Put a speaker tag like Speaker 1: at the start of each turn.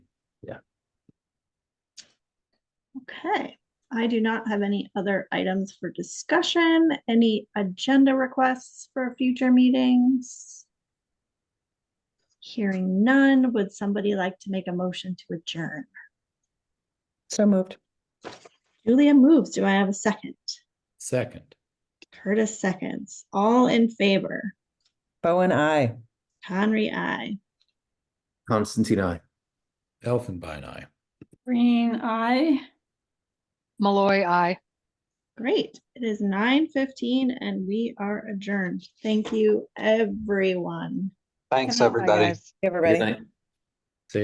Speaker 1: Okay, I do not have any other items for discussion. Any agenda requests for future meetings? Hearing none, would somebody like to make a motion to adjourn?
Speaker 2: So moved.
Speaker 1: Julia moves. Do I have a second?
Speaker 3: Second.
Speaker 1: Curtis seconds. All in favor?
Speaker 2: Bowen, I.
Speaker 1: Conry, I.
Speaker 4: Constantine, I.
Speaker 3: Elfenbein Eye.
Speaker 5: Green eye.
Speaker 6: Malloy, aye.
Speaker 1: Great. It is nine fifteen and we are adjourned. Thank you, everyone.
Speaker 7: Thanks,
Speaker 6: Bye,
Speaker 7: everybody.
Speaker 6: guys.
Speaker 2: Everybody.
Speaker 4: Good night.